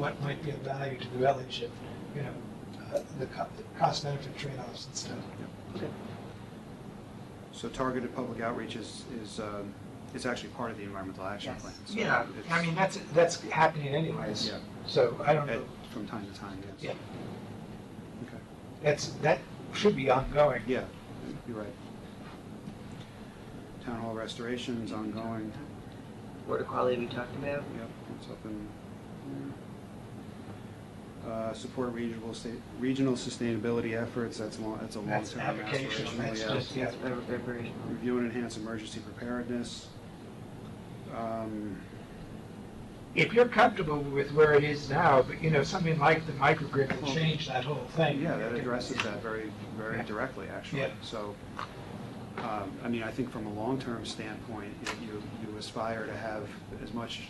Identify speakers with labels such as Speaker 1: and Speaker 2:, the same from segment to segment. Speaker 1: what might be of value to the village and, you know, uh, the co- the cost benefit trade-offs and stuff.
Speaker 2: So targeted public outreach is, is, um, is actually part of the environmental action
Speaker 3: Yes.
Speaker 2: plan. So
Speaker 1: Yeah,
Speaker 2: it's-
Speaker 1: I mean, that's, that's happening anyways,
Speaker 2: Yeah.
Speaker 1: so I don't know,
Speaker 2: at- From time to time, yes. Okay.
Speaker 1: that's, that should be ongoing.
Speaker 2: Yeah, you're right. Town hall restoration's ongoing,
Speaker 3: Water quality we talked about.
Speaker 2: yep, it's up in. Uh, support regional state, regional sustainability efforts, that's long, that's a long-term.
Speaker 1: That's application,
Speaker 2: aspirational,
Speaker 1: that's
Speaker 2: yeah.
Speaker 1: just, yeah.
Speaker 3: That's very- very- very-
Speaker 2: Review and enhance emergency preparedness. Um,
Speaker 1: If you're comfortable with where it is now, but, you know, something like the microgrid will change that whole thing.
Speaker 2: Yeah, that addresses that very, very
Speaker 1: Yeah.
Speaker 2: directly, actually.
Speaker 1: Yeah.
Speaker 2: So, um, I mean, I think from a long-term standpoint, you- you, you aspire to have as much,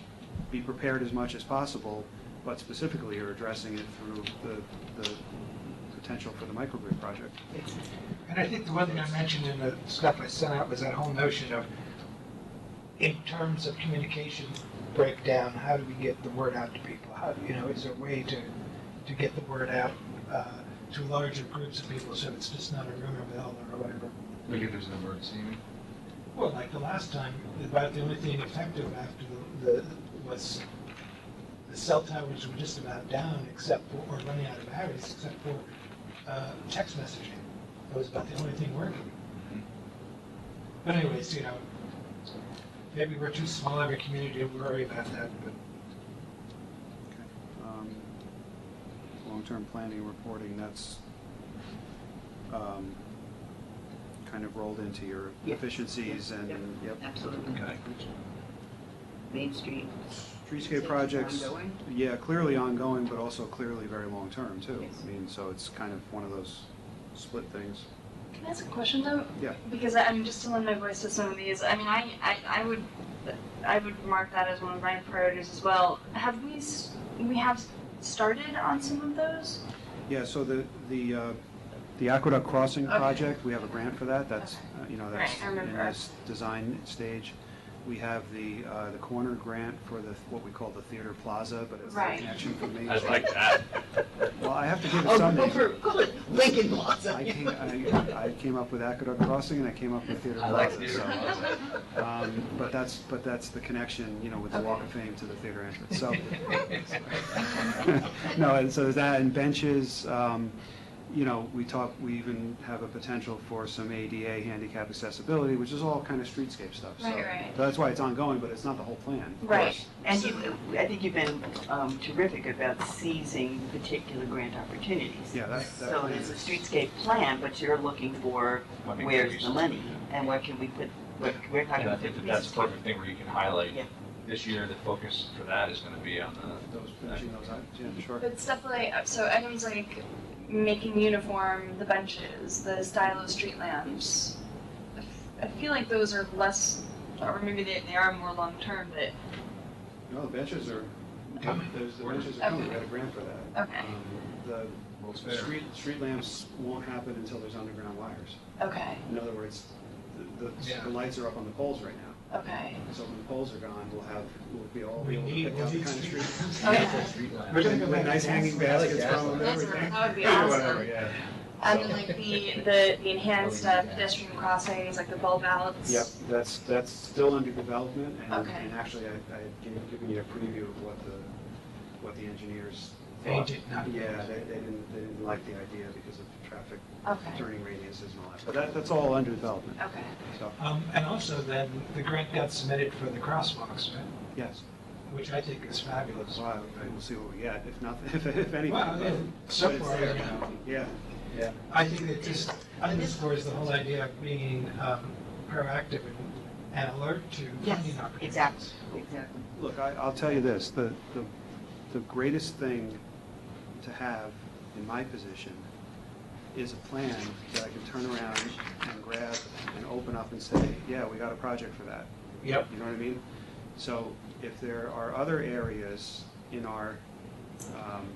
Speaker 2: be prepared as much as possible, but specifically you're addressing it through the, the potential for the microgrid project.
Speaker 3: it's-
Speaker 1: And I think the one thing I mentioned in the stuff I sent out was that whole notion of, in terms of communication breakdown, how do we get the word out to people? How, you know, is there a way to, to get the word out uh, to larger groups of people so it's just not a rumor mill or whatever?
Speaker 4: Like if there's an emergency, you mean?
Speaker 1: Well, like the last time, about the only thing effective after the, the- was the cell towers were just about down except for, or running out of batteries except for uh, text messaging. That was about the only thing working. But anyways, you know, maybe we're too small of a community to worry about that, but
Speaker 2: Um, Long-term planning and reporting, that's um, kind of rolled into your
Speaker 3: Yeah.
Speaker 2: efficiencies and,
Speaker 3: Yep.
Speaker 2: yep.
Speaker 3: Absolutely. Main Street.
Speaker 2: Streetscape projects,
Speaker 3: Ongoing?
Speaker 2: yeah, clearly ongoing, but also clearly very long-term, too.
Speaker 3: Yes.
Speaker 2: I mean, so it's kind of one of those split things.
Speaker 5: Can I ask a question though?
Speaker 2: Yeah.
Speaker 5: Because I- I'm just to lend my voice to some of these. I mean, I, I, I would, I would mark that as one of my priorities as well. Have we, s- we have started on some of those?
Speaker 2: Yeah, so the, the, uh, the Aqueduct Crossing
Speaker 5: Okay.
Speaker 2: project, we have a grant for that, that's, uh, you know, that's
Speaker 5: Right, I
Speaker 2: in
Speaker 5: remember.
Speaker 2: this design stage. We have the, uh, the corner grant for the, what we call the Theater Plaza, but it's
Speaker 5: Right.
Speaker 2: an action for me.
Speaker 4: I'd like that.
Speaker 2: Well, I have to give it
Speaker 3: Oh,
Speaker 2: some
Speaker 3: no,
Speaker 2: name.
Speaker 3: for good. Lincoln Plaza.
Speaker 2: I came, I, I came up with Aqueduct Crossing and I came up with Theater
Speaker 4: I like
Speaker 2: Plaza,
Speaker 4: theater
Speaker 2: so. uh,
Speaker 4: plaza.
Speaker 2: Um, But that's, but that's the connection, you know, with the Walk of Fame to the theater entrance, so. No, and so there's that, and benches, um, you know, we talk, we even have a potential for some ADA handicap accessibility, which is all kind of streetscape stuff, so.
Speaker 5: Right, right.
Speaker 2: That's why it's ongoing, but it's not the whole plan. of course.
Speaker 3: And you, I think you've been um, terrific about seizing particular grant opportunities.
Speaker 2: Yeah, that, that.
Speaker 3: So
Speaker 2: plan
Speaker 3: there's a
Speaker 2: is-
Speaker 3: streetscape plan, but you're looking for
Speaker 4: Money
Speaker 3: where's the
Speaker 4: contributions.
Speaker 3: money and what can we put, what, where can
Speaker 4: And
Speaker 3: I
Speaker 4: I
Speaker 3: put the
Speaker 4: think that that's a
Speaker 3: resources?
Speaker 4: perfect thing where you can highlight,
Speaker 3: Yeah.
Speaker 4: this year, the focus for that is gonna be on
Speaker 2: Those,
Speaker 4: the,
Speaker 2: finishing those items, yeah, sure.
Speaker 5: But stuff like, so items like making uniform, the benches, the style of street lamps. I f- I feel like those are less, or maybe they, they are more long-term, but,
Speaker 2: No, the benches are, there's, the benches are
Speaker 5: Okay.
Speaker 2: coming, we got a grant for that.
Speaker 5: okay,
Speaker 2: Um, The
Speaker 4: World's
Speaker 2: street, street lamps won't happen until there's underground wires.
Speaker 5: okay,
Speaker 2: In other words, the, the,
Speaker 1: Yeah.
Speaker 2: the lights are up on the poles right now.
Speaker 5: okay.
Speaker 2: So when the poles are gone, we'll have, we'll be all
Speaker 1: we
Speaker 2: able to
Speaker 1: need,
Speaker 2: pick
Speaker 1: we
Speaker 2: out the
Speaker 1: need
Speaker 2: kind of
Speaker 1: street.
Speaker 2: street.
Speaker 5: Okay.
Speaker 2: We're gonna go with nice hanging baskets
Speaker 4: gas
Speaker 2: from
Speaker 4: lights.
Speaker 2: them and
Speaker 5: Those are-
Speaker 2: everything.
Speaker 5: that would be
Speaker 2: Yeah,
Speaker 5: awesome.
Speaker 2: whatever, yeah.
Speaker 5: And then like the, the, the enhanced
Speaker 4: Oh, yeah.
Speaker 5: uh, pedestrian crossings, like the bulb outs.
Speaker 2: Yep, that's, that's still under development and,
Speaker 5: Okay.
Speaker 2: and actually I, I gave, given you a preview of what the, what the engineers
Speaker 1: they
Speaker 2: thought.
Speaker 1: did not.
Speaker 2: Yeah, they, they didn't, they didn't like the idea because of traffic
Speaker 5: Okay,
Speaker 2: turning radiuses and all that, but that, that's all under development,
Speaker 5: okay.
Speaker 2: so,
Speaker 1: Um, And also then, the grant got submitted for the crosswalks, right?
Speaker 2: yes.
Speaker 1: which I think is fabulous.
Speaker 2: Wow, and we'll see what we get, if nothing, if, if anything.
Speaker 1: Well,
Speaker 2: but-
Speaker 1: yeah, so
Speaker 2: but it's
Speaker 1: far,
Speaker 2: there.
Speaker 1: you know.
Speaker 2: Yeah,
Speaker 1: I think it just underscores the whole idea of being um, proactive and, and alert to
Speaker 3: Yes,
Speaker 1: funding opportunities.
Speaker 3: exactly, exactly.
Speaker 2: look, I, I'll tell you this, the, the, the greatest thing to have in my position is a plan that I can turn around and grab and open up and say, yeah, we got a project for that.
Speaker 1: Yep.
Speaker 2: You know what I mean? So if there are other areas in our, um,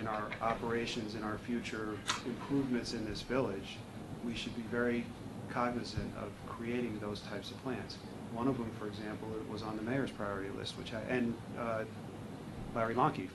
Speaker 2: in our operations, in our future improvements in this village, we should be very cognizant of creating those types of plans. One of them, for example, was on the mayor's priority list, which I, and uh, Larry Lonkey